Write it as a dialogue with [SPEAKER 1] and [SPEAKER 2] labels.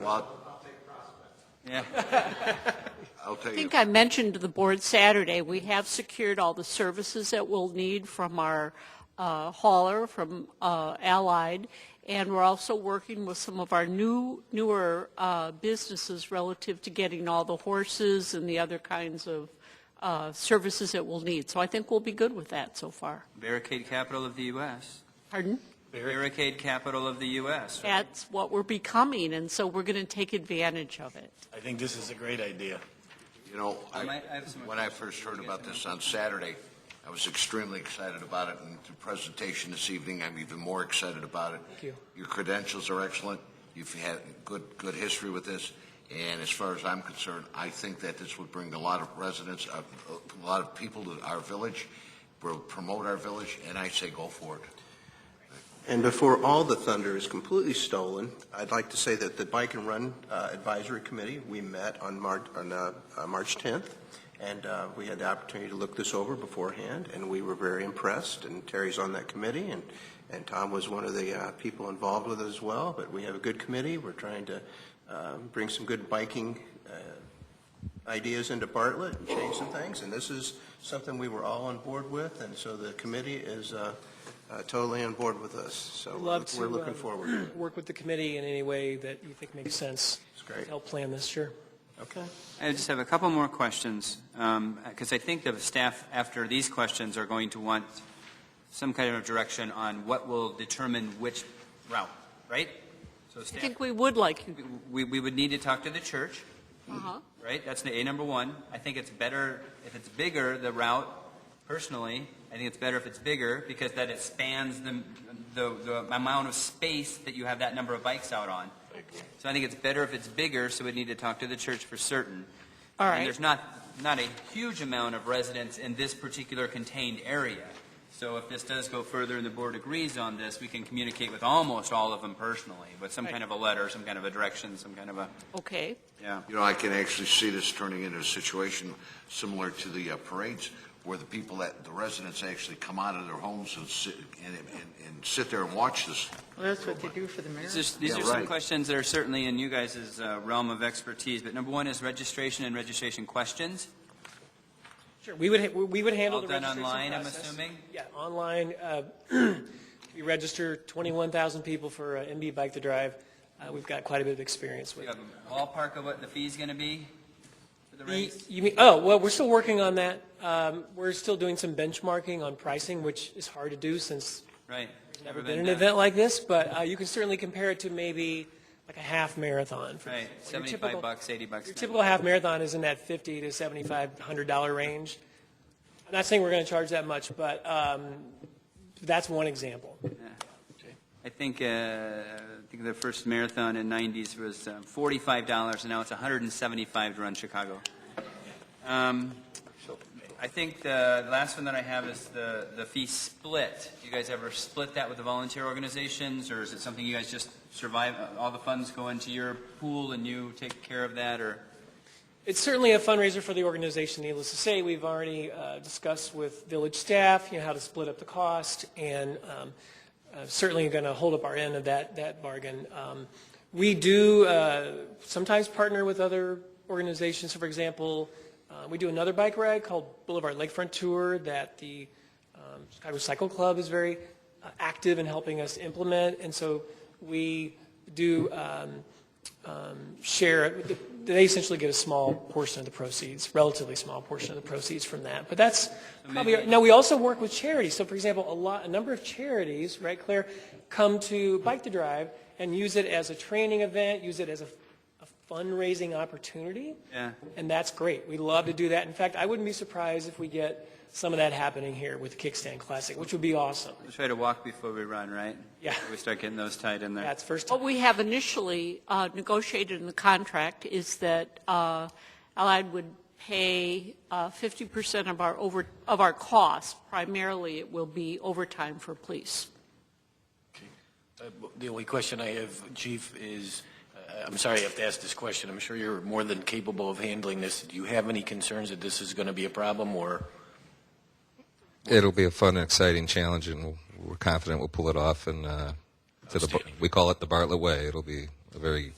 [SPEAKER 1] Well,
[SPEAKER 2] Yeah.
[SPEAKER 1] I'll tell
[SPEAKER 3] I
[SPEAKER 1] you,
[SPEAKER 3] think I mentioned to the board Saturday, we have secured all the services that we'll need from our uh, hauler, from uh, Allied, and we're also working with some of our new, newer uh, businesses relative to getting all the horses and the other kinds of uh, services that we'll need. So I think we'll be good with that so far.
[SPEAKER 2] Barricade capital of the U.S.
[SPEAKER 3] Pardon?
[SPEAKER 2] Barricade capital of the U.S.
[SPEAKER 3] That's what we're becoming, and so we're going to take advantage of it.
[SPEAKER 4] I think this is a great idea.
[SPEAKER 1] you know,
[SPEAKER 2] I
[SPEAKER 1] I,
[SPEAKER 2] might- I have some-
[SPEAKER 1] when I first heard about this on Saturday, I was extremely excited about it, and the presentation this evening, I'm even more excited about it. Thank you. Your credentials are excellent. You've had good, good history with this, and as far as I'm concerned, I think that this would bring a lot of residents, a, a lot of people to our village, will promote our village, and I say go for it.
[SPEAKER 5] And before all the thunder is completely stolen, I'd like to say that the Bike and Run uh, Advisory Committee, we met on March, on uh, uh, March 10th, and uh, we had the opportunity to look this over beforehand, and we were very impressed, and Terry's on that committee, and, and Tom was one of the uh, people involved with it as well, but we have a good committee, we're trying to uh, bring some good biking uh, ideas into Bartlett and change some things, and this is something we were all on board with, and so the committee is uh, uh, totally on board with us, so
[SPEAKER 6] We'd love
[SPEAKER 5] we're
[SPEAKER 6] to,
[SPEAKER 5] looking
[SPEAKER 6] uh,
[SPEAKER 5] forward to it.
[SPEAKER 6] Work with the committee in any way that you think makes sense.
[SPEAKER 5] It's great.
[SPEAKER 6] Help plan this, sure.
[SPEAKER 5] Okay.
[SPEAKER 2] I just have a couple more questions, because I think the staff, after these questions, are going to want some kind of direction on what will determine which route, right? So
[SPEAKER 3] I
[SPEAKER 2] staff,
[SPEAKER 3] think we would like you,
[SPEAKER 2] we, we would need to talk to the church,
[SPEAKER 3] uh-huh.
[SPEAKER 2] right? That's the A number one. I think it's better, if it's bigger, the route, personally, I think it's better if it's bigger, because then it spans the, the, the amount of space that you have that number of bikes out on. So I think it's better if it's bigger, so we need to talk to the church for certain.
[SPEAKER 3] all
[SPEAKER 2] And
[SPEAKER 3] right.
[SPEAKER 2] there's not, not a huge amount of residents in this particular contained area. So if this does go further and the board agrees on this, we can communicate with almost all of them personally, with some
[SPEAKER 3] Right.
[SPEAKER 2] kind of a letter, some kind of a direction, some kind of a,
[SPEAKER 3] Okay.
[SPEAKER 2] yeah.
[SPEAKER 1] You know, I can actually see this turning into a situation similar to the uh, parades, where the people that, the residents actually come out of their homes and sit, and, and, and sit there and watch this.
[SPEAKER 7] Well, that's what they do for the mayor.
[SPEAKER 2] These are, these
[SPEAKER 1] Yeah,
[SPEAKER 2] are some
[SPEAKER 1] right.
[SPEAKER 2] questions that are certainly in you guys' uh, realm of expertise, but number one is registration and registration questions.
[SPEAKER 6] Sure, we would, ha- we would handle
[SPEAKER 2] All
[SPEAKER 6] the
[SPEAKER 2] done
[SPEAKER 6] registration
[SPEAKER 2] online, I'm
[SPEAKER 6] process.
[SPEAKER 2] assuming?
[SPEAKER 6] Yeah, online. uh, We register 21,000 people for uh, MB Bike to Drive. Uh, We've got quite a bit of experience
[SPEAKER 2] Do
[SPEAKER 6] with.
[SPEAKER 2] you have a ballpark of what the fee's going to be for the
[SPEAKER 6] You
[SPEAKER 2] race?
[SPEAKER 6] you mean, oh, well, we're still working on that. Um, We're still doing some benchmarking on pricing, which is hard to do since
[SPEAKER 2] Right.
[SPEAKER 6] never been an
[SPEAKER 2] done.
[SPEAKER 6] event like this, but uh, you can certainly compare it to maybe like a half marathon. for
[SPEAKER 2] Right,
[SPEAKER 6] example. Your
[SPEAKER 2] 75
[SPEAKER 6] typical-
[SPEAKER 2] bucks, 80 bucks.
[SPEAKER 6] Your
[SPEAKER 2] now.
[SPEAKER 6] typical half marathon is in that 50 to 75, 100 dollar range. I'm not saying we're going to charge that much, but um, that's one example.
[SPEAKER 2] I think, uh, I think the first marathon in '90s was um, forty-five dollars, and now it's one hundred and seventy-five to run Chicago. Um, I think the last one that I have is the the fee split. Do you guys ever split that with the volunteer organizations, or is it something you guys just survive? uh, All the funds go into your pool, and you take care of that, or?
[SPEAKER 6] It's certainly a fundraiser for the organization. Needless to say, we've already uh, discussed with village staff, you know, how to split up the cost, and um, uh, certainly going to hold up our end of that that bargain. Um, we do uh, sometimes partner with other organizations. So, for example, uh, we do another bike ride called Boulevard Lakefront Tour that the um, Chicago Cycle Club is very uh, active in helping us implement, and so we do. Um, share, they essentially get a small portion of the proceeds, relatively small portion of the proceeds from that. But that's probably, now, we also work with charities. So for example, a lot, a number of charities, right, Claire, come to Bike to Drive and use it as a training event, use it as a a fundraising opportunity.
[SPEAKER 2] Yeah.
[SPEAKER 6] And that's great. We love to do that. In fact, I wouldn't be surprised if we get some of that happening here with the Kickstand Classic, which would be awesome.
[SPEAKER 2] We try to walk before we run, right?
[SPEAKER 6] Yeah.
[SPEAKER 2] We start getting those tied in there.
[SPEAKER 6] That's first.
[SPEAKER 3] What we have initially uh, negotiated in the contract is that uh, Allied would pay uh, 50% of our over, of our costs. Primarily, it will be overtime for police.
[SPEAKER 8] Uh, The only question I have, Chief, is, uh, I'm sorry I have to ask this question. I'm sure you're more than capable of handling this. Do you have any concerns that this is going to be a problem, or?
[SPEAKER 9] It'll be a fun, and exciting challenge, and we'll- we're confident we'll pull it off. And uh, to the,
[SPEAKER 8] Outstanding.
[SPEAKER 9] we call it the Bartlett Way. It'll be a very